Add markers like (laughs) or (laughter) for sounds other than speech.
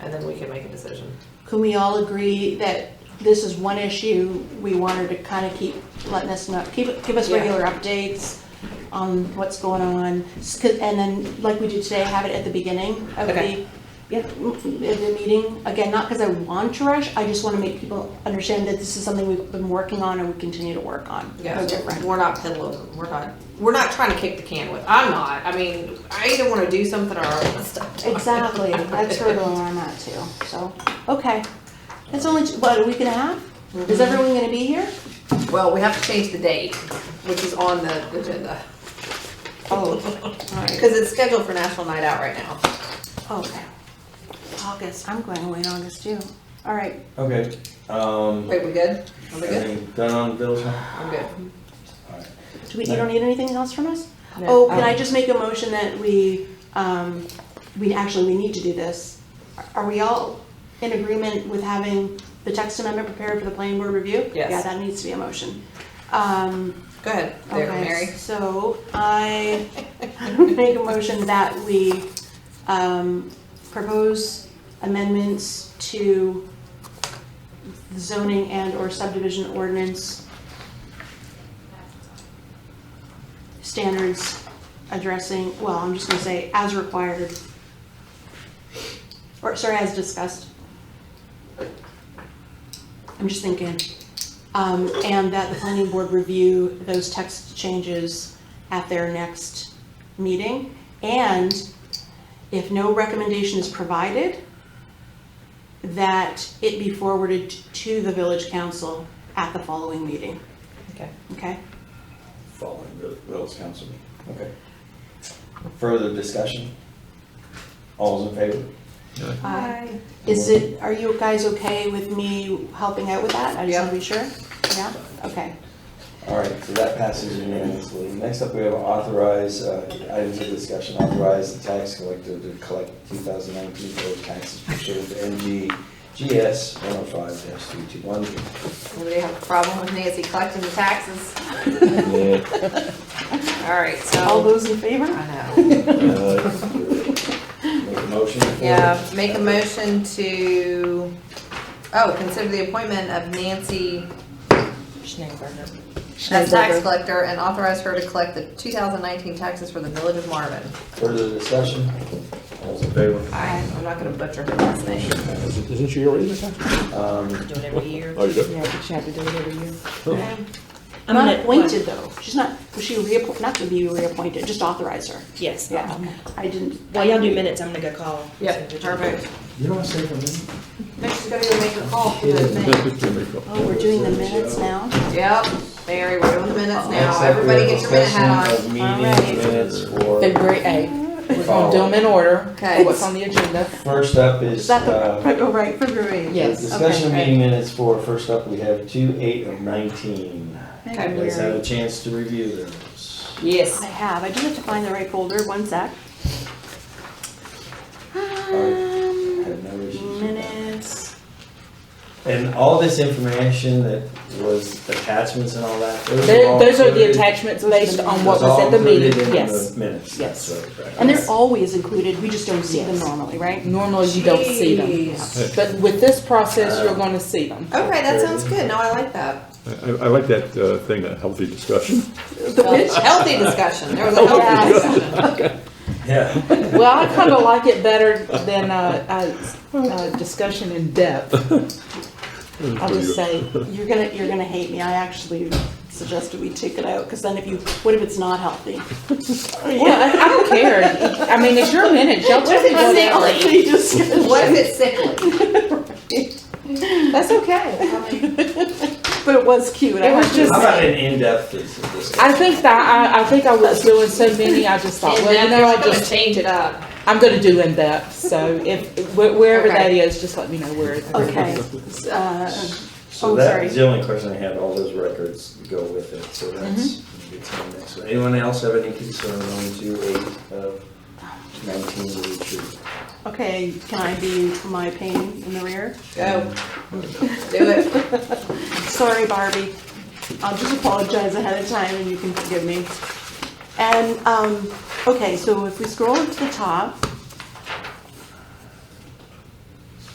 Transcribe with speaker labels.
Speaker 1: and then we can make a decision.
Speaker 2: Can we all agree that this is one issue, we want her to kind of keep letting us know, keep, give us
Speaker 1: Yeah.
Speaker 2: regular updates on what's going on, S- 'cause- and then, like we do today, have it at the beginning of the,
Speaker 1: Okay.
Speaker 2: yeah, mm, of the meeting. Again, not because I want to rush, I just want to make people understand that this is something we've been working on and we continue to work on.
Speaker 1: Yeah,
Speaker 2: No different.
Speaker 1: we're not peddling, we're not, we're not trying to kick the can with, I'm not, I mean, I either wanna do something or I'm gonna stop talking.
Speaker 2: Exactly, that's sort of where I'm at too, so, okay. That's only, what, a week and a half? Is
Speaker 1: Mm-hmm.
Speaker 2: everyone gonna be here?
Speaker 1: (laughs) Well, we have to change the date, which is on the agenda, (laughs)
Speaker 2: Oh, all right.
Speaker 1: because it's scheduled for National Night Out right now.
Speaker 2: Okay. August, I'm going away in August too. All right,
Speaker 3: Okay, um,
Speaker 1: Wait, we good? Are we good?
Speaker 3: everything done on the bills? now?
Speaker 1: I'm good.
Speaker 2: do we, you don't need anything else from us?
Speaker 1: No. Um,
Speaker 2: Oh, can I just make a motion that we, um, we, actually, we need to do this. Are we all in agreement with having the text amendment prepared for the planning board review?
Speaker 1: Yes.
Speaker 2: Yeah, that needs to be a motion. Um,
Speaker 1: Go ahead, there,
Speaker 2: Okay,
Speaker 1: Mary.
Speaker 2: So I (laughs) make a motion that we um, propose amendments to the zoning and or subdivision ordinance standards addressing, well, I'm just gonna say as required. Or, sorry, as discussed. I'm just thinking. Um, and that the planning board review those text changes at their next meeting. And if no recommendation is provided, that it be forwarded to the village council at the following meeting,
Speaker 1: Okay.
Speaker 2: okay?
Speaker 3: Following the bills council meeting, okay. Further discussion? All's in favor?
Speaker 2: Aye. Uh, Is it, are you guys okay with me helping out with that? I just wanna be sure, yeah, okay.
Speaker 3: All right, so that passes unanimously. Next up, we have authorize, uh, items of discussion, authorize the tax collector to collect 2019 village taxes pursuant to NGGS 105-321.
Speaker 1: Anybody have a problem with Nancy collecting the taxes?
Speaker 3: Yeah,
Speaker 1: All right,
Speaker 2: All
Speaker 1: so,
Speaker 2: those in favor?
Speaker 1: I know.
Speaker 3: uh, Make a motion? for-
Speaker 1: Yeah, make a motion to, oh, consider the appointment of Nancy as tax collector and authorize her to collect the 2019 taxes for the village of Marvin.
Speaker 3: Further discussion? All's in favor?
Speaker 1: I, I'm not gonna butcher her last name.
Speaker 4: Isn't she already the tax?
Speaker 3: Um,
Speaker 5: Do it every year.
Speaker 4: Oh, you do?
Speaker 5: Yeah, but you have to do it every year. I'm
Speaker 2: Not
Speaker 5: gonna-
Speaker 2: appointed though, she's not, was she reappointed, not to be reappointed, just authorize her.
Speaker 5: Yes.
Speaker 2: Yeah, Um, I didn't.
Speaker 5: While y'all do minutes, I'm gonna go call.
Speaker 1: Yep, perfect.
Speaker 3: You don't say for me?
Speaker 1: Next, she's gonna go make a call for the thing.
Speaker 4: (laughs)
Speaker 2: Oh, we're doing the minutes now?
Speaker 1: Yep, Mary, we're doing the minutes
Speaker 3: Next
Speaker 1: now.
Speaker 3: up, we
Speaker 1: Everybody
Speaker 3: have
Speaker 1: get your minute hat
Speaker 3: discussion
Speaker 1: on.
Speaker 3: of
Speaker 2: Alright.
Speaker 3: meeting minutes for,
Speaker 6: February 8th. We're going to do them in order,
Speaker 1: Okay.
Speaker 6: what's on the agenda.
Speaker 3: first up is,
Speaker 2: Is that the,
Speaker 3: uh,
Speaker 2: right, oh, right, February?
Speaker 6: Yes.
Speaker 3: discussion of
Speaker 2: okay.
Speaker 3: meeting minutes for, first up, we have two, eight, and nineteen.
Speaker 1: Okay.
Speaker 3: Let's have a chance to review those.
Speaker 2: I
Speaker 6: Yes.
Speaker 2: have, I do have to find the right folder, one sec.
Speaker 6: Um,
Speaker 3: I
Speaker 2: Um,
Speaker 3: have no issues with that.
Speaker 2: Minutes,
Speaker 3: And all this information that was attachments and all that, those are all
Speaker 6: Those those are the
Speaker 3: included-
Speaker 6: attachments based on what
Speaker 3: those are
Speaker 6: was at the
Speaker 3: all included in
Speaker 6: meeting, yes.
Speaker 3: the Minutes,
Speaker 6: Yes.
Speaker 3: that's right. right.
Speaker 2: and they're always included, we just don't see them
Speaker 6: Yes.
Speaker 3: (laughs)
Speaker 2: normally, right?
Speaker 6: Normally you don't see them.
Speaker 1: Jeez.
Speaker 6: But with this process, you're going to see them.
Speaker 1: Okay, that sounds good. No, I like that.
Speaker 4: I, I like that uh, thing, a healthy discussion.
Speaker 2: The which,
Speaker 1: Healthy discussion. There was a healthy
Speaker 2: Yeah.
Speaker 1: discussion.
Speaker 3: Yeah.
Speaker 6: Well, I kind of like it better than a, a, a discussion in depth.
Speaker 3: (laughs)
Speaker 6: I'll just say,
Speaker 2: you're gonna, you're gonna hate me, I actually suggested we take it out, because then if you, (laughs) what if it's not healthy?
Speaker 6: yeah, I I don't care. I mean, it's your minute, y'all tell me whatever.
Speaker 2: (laughs) You just-
Speaker 1: What if it's sickly?
Speaker 6: That's okay.
Speaker 2: But it was cute. I
Speaker 6: It was
Speaker 2: have to-
Speaker 6: just-
Speaker 3: How about an in-depth dis-
Speaker 6: I
Speaker 3: discussion?
Speaker 6: think that, I, I think I was doing so many, I just thought, well, you know, I just
Speaker 1: change it up.
Speaker 6: I'm gonna do in depth. So if wh- wherever
Speaker 1: Okay.
Speaker 6: that is, just let me know where. It,
Speaker 2: Okay, s- uh,
Speaker 3: So
Speaker 2: oh,
Speaker 3: that
Speaker 2: sorry.
Speaker 3: was the only question I had, all those records go with it, so that's,
Speaker 2: Mm-hmm.
Speaker 3: it's on next one. Anyone else have any concern on two, eight, uh, nineteen, eighty-three?
Speaker 2: okay, can I be my pain in the rear?
Speaker 1: Go. Do it.
Speaker 2: Sorry, Barbie. I'll just apologize ahead of time and you can forgive me. And, um, okay, so if we scroll to the top,